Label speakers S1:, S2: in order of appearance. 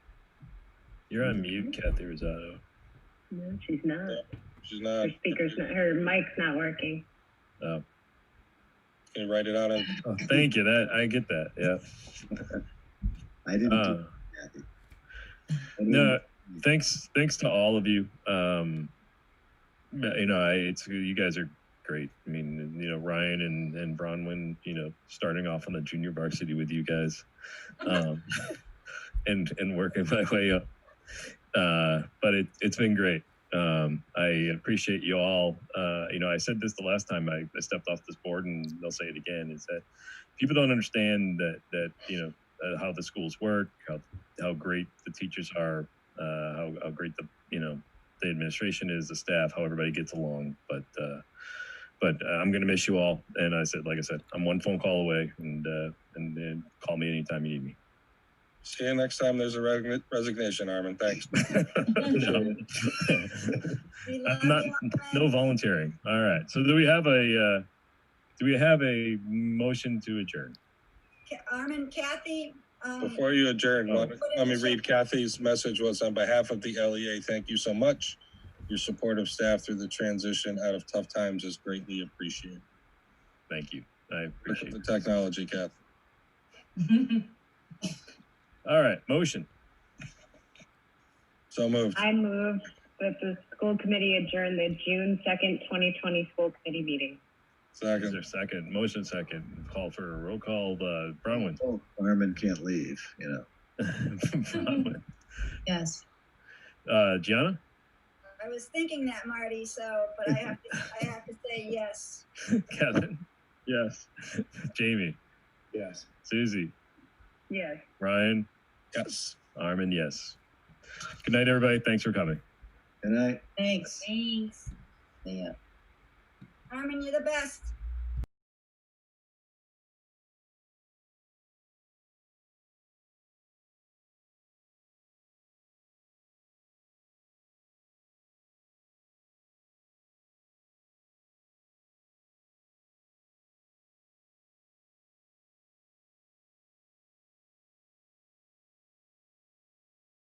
S1: You're on mute, Kathy Rosado.
S2: No, she's not.
S3: She's not,
S2: Her speaker's not, her mic's not working.
S1: Oh,
S3: can you write it out on,
S1: oh, thank you. That I get that. Yeah.
S4: I didn't do
S1: Uh,
S4: it, Kathy. I
S1: no,
S4: didn't-
S1: thanks. Thanks to all of you. Um, you know, I, it's you guys are great. I mean, you know, Ryan and and Bronwyn. You know, starting off on the junior varsity with you guys, um, and and working my way up. Uh, but it it's been great. Um, I appreciate you all. Uh, you know, I said this the last time I, I stepped off this board, and they'll say it again: is that people don't understand that that you know uh, how the schools work, how how great the teachers are, uh, how, how great the you know the administration is, the staff, how everybody gets along. But uh, but uh, I'm gonna miss you all. And I said, like I said, I'm one phone call away, and uh, and, and call me anytime you need me.
S3: see you next time there's a regna- resignation, Armin, thanks.
S1: No.
S5: We love
S1: I'm not
S5: you,
S1: no volunteering. All right. So do we have a uh, do we have a motion to adjourn?
S5: Ca- Armin, Kathy, um,
S3: Before you adjourn,
S1: Oh.
S3: let me- let me read Kathy's message was on behalf of the LEA, thank you so much. Your support of staff through the transition out of tough times is greatly appreciated.
S1: Thank you. I
S3: Look at
S1: appreciate
S3: the
S1: it.
S3: technology, Kathy.
S1: All right. Motion.
S3: So moved.
S2: I move that the school committee adjourn the June second, twenty twenty school committee meeting.
S1: Is
S3: Second.
S1: there a second? Motion second. Call for a roll call. Uh, Bronwyn.
S4: Oh, Armin can't leave, you know.
S1: Bronwyn.
S6: Yes.
S1: Uh, Gianna?
S5: I was thinking that, Marty, so, but I have to, I have to say yes.
S1: Kevin? Yes. Jamie?
S7: Yes.
S1: Susie?
S2: Yes.
S1: Ryan?
S3: Yes.
S1: Armin, yes. Good night, everybody. Thanks for coming.
S4: And I,
S6: Thanks.
S5: Thanks.
S6: Yeah.
S5: Armin, you're the best.